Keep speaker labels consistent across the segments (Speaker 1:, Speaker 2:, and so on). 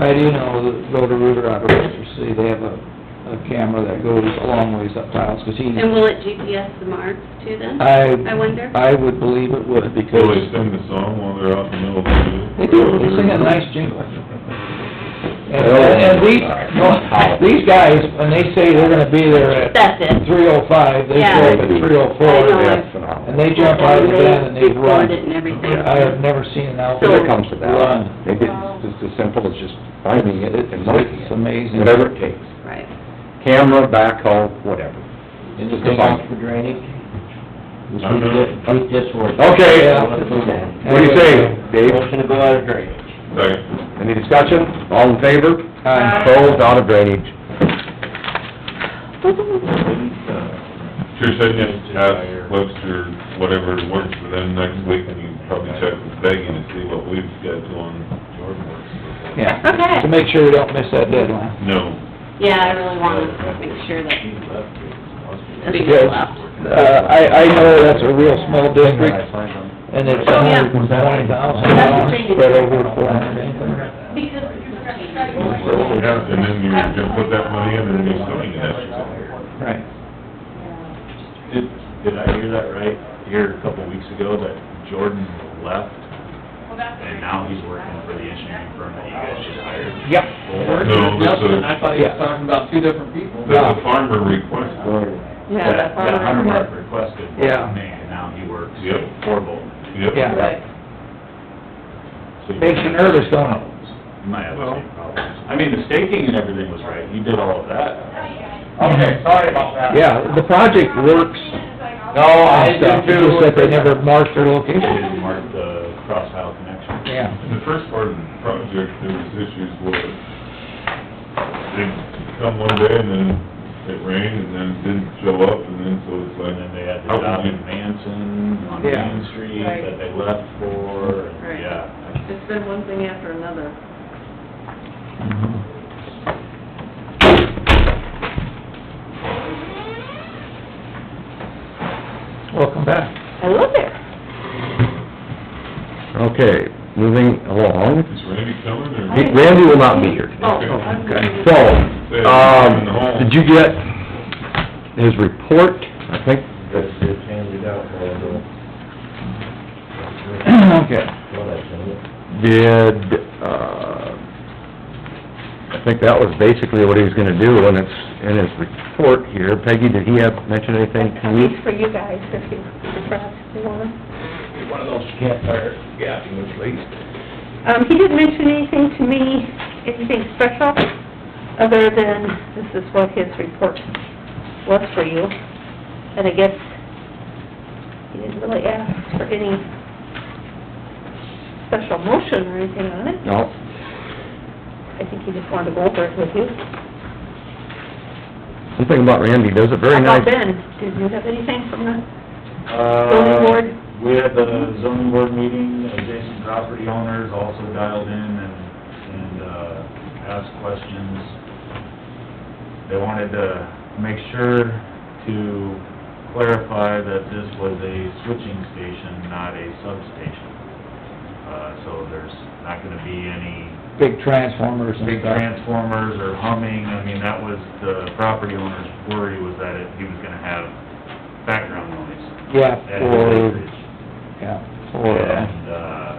Speaker 1: I do know that go to Ruger Operators, see, they have a, a camera that goes a long ways up tiles, 'cause he,
Speaker 2: And will it GPS the marks to them?
Speaker 1: I...
Speaker 2: I wonder.
Speaker 1: I would believe it would,
Speaker 3: Will they
Speaker 1: because
Speaker 3: sing the song while they're out in the middle of the...
Speaker 1: they do, they sing a nice jingle. And, and these, these guys, when they say they're gonna be there at
Speaker 2: That's it.
Speaker 1: three oh five, they show up at three oh
Speaker 2: I know
Speaker 1: four,
Speaker 2: it.
Speaker 4: That's phenomenal.
Speaker 1: and they jump out of the van and they run.
Speaker 2: Record it and everything.
Speaker 1: I have never seen an outfit
Speaker 4: When it comes to
Speaker 1: run.
Speaker 4: that, maybe it's just as simple as just finding it and marking
Speaker 1: It's
Speaker 4: it,
Speaker 1: amazing.
Speaker 4: whatever it takes.
Speaker 2: Right.
Speaker 4: Camera, backhoe, whatever.
Speaker 5: Anything else for drainage?
Speaker 3: I don't know.
Speaker 5: Beat this one.
Speaker 4: Okay.
Speaker 5: Let's move on.
Speaker 4: What do you say, Dave?
Speaker 5: Motion to go out of drainage.
Speaker 3: Second.
Speaker 4: Any discussion? All in favor?
Speaker 1: Aye.
Speaker 4: Opposed, out of drainage.
Speaker 3: Sure said, yes, ask Webster, whatever works for them next week, and you can probably check with Peggy to see what we've got going.
Speaker 1: Yeah.
Speaker 2: Okay.
Speaker 1: To make sure we don't miss that deadline.
Speaker 3: No.
Speaker 2: Yeah, I really want to make sure that the big
Speaker 1: Yes.
Speaker 2: left.
Speaker 1: Uh, I, I know that's a real small district, and it's
Speaker 2: Oh, yeah.
Speaker 1: only twenty thousand
Speaker 2: That's the
Speaker 1: dollars
Speaker 2: thing.
Speaker 1: spread over four hundred acres.
Speaker 3: Yeah, and then you're gonna put that money in, and you're selling it after that.
Speaker 1: Right.
Speaker 6: Did, did I hear that right, here a couple weeks ago, that Jordan left, and now he's working for the engineering firm that you guys just hired?
Speaker 1: Yep.
Speaker 3: No, that's a-
Speaker 7: I thought he was talking about two different people.
Speaker 3: That's a farmer request.
Speaker 2: Yeah,
Speaker 6: That,
Speaker 2: that's all
Speaker 6: that Hunter Mark
Speaker 2: right.
Speaker 6: requested,
Speaker 1: Yeah.
Speaker 6: was me, and now he works
Speaker 3: Yep.
Speaker 6: for Bolton.
Speaker 3: Yep.
Speaker 1: Yeah.
Speaker 6: So you-
Speaker 1: Makes you nervous, don't it?
Speaker 6: You might have the same problems. I mean, the staking and everything was right, he did all of that.
Speaker 5: Okay, sorry about that.
Speaker 1: Yeah, the project works
Speaker 5: No,
Speaker 4: Oh,
Speaker 5: I
Speaker 1: and stuff,
Speaker 5: do
Speaker 1: it's
Speaker 5: too.
Speaker 1: just that they never marked their
Speaker 6: He
Speaker 1: location.
Speaker 6: didn't mark the cross tile connection.
Speaker 1: Yeah.
Speaker 3: In the first part of the project, there was issues where they'd come one day and then it rained and then it didn't show up and then so it's like.
Speaker 6: And then they had the
Speaker 3: how
Speaker 6: job
Speaker 3: can
Speaker 6: in Manson on
Speaker 1: Yeah.
Speaker 6: Main Street that they left for, and, yeah.
Speaker 2: It's been one thing after another.
Speaker 1: Welcome back.
Speaker 2: I love it.
Speaker 4: Okay, moving along.
Speaker 3: you- Is Randy coming or?
Speaker 4: He- Randy will not be here today.
Speaker 2: Oh, okay.
Speaker 4: So, um, did you get his report? I think
Speaker 5: That's good, handed out,
Speaker 1: Okay.
Speaker 4: did, uh, I think that was basically what he was gonna do, and it's in his report here. Peggy, did he have, mention anything to you?
Speaker 8: Copies for you guys, if you, perhaps you want.
Speaker 5: One of those campfire gapping at least.
Speaker 8: Um, he didn't mention anything to me, anything special, other than this is what his report was for you. And I guess he didn't really ask for any special motion or anything on it.
Speaker 4: No?
Speaker 8: I think he just wanted to go over it with you.
Speaker 4: Something about Randy does a very
Speaker 8: How
Speaker 4: nice...
Speaker 8: about Ben? Did you have anything from the zoning board?
Speaker 6: Uh, We had the zoning board meeting, adjacent property owners also dialed in and, and, uh, asked questions. They wanted to make sure to clarify that this was a switching station, not a substation. Uh, so there's not gonna be any
Speaker 1: Big transformers and
Speaker 6: big
Speaker 1: stuff.
Speaker 6: transformers or humming, I mean, that was the property owner's worry was that it- he was gonna have background noise.
Speaker 1: Yeah,
Speaker 6: at his
Speaker 1: for,
Speaker 6: acreage.
Speaker 1: yeah, for, uh,
Speaker 6: And, uh,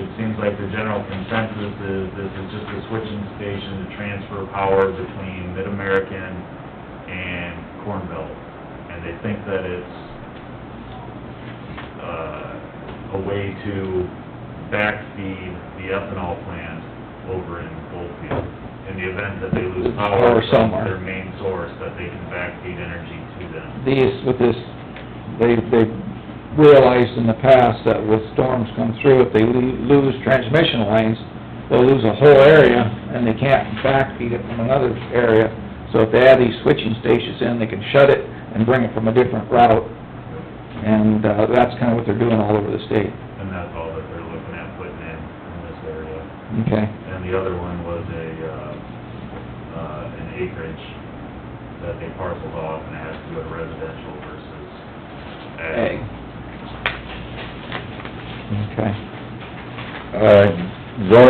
Speaker 6: it seems like the general consensus is this is just a switching station to transfer power between Mid-American and Cornville. And they think that it's, uh, a way to backfeed the ethanol plant over in Goldfield. In the event that they lose
Speaker 1: Power
Speaker 6: power from
Speaker 1: somewhere.
Speaker 6: their main source, that they can backfeed energy to them.
Speaker 1: these, with this, they, they realized in the past that with storms come through, if they lo- lose transmission lines, they'll lose a whole area, and they can't backfeed it from another area. So if they add these switching stations in, they can shut it and bring it from a different route. And, uh, that's kinda what they're doing all over the state,
Speaker 6: And that's all that they're looking at putting in, in this area.
Speaker 1: okay?
Speaker 6: And the other one was a, uh, uh, an acreage that they parceled off and it has to go to residential versus ag.
Speaker 1: Ag. Okay.
Speaker 4: Uh, zoning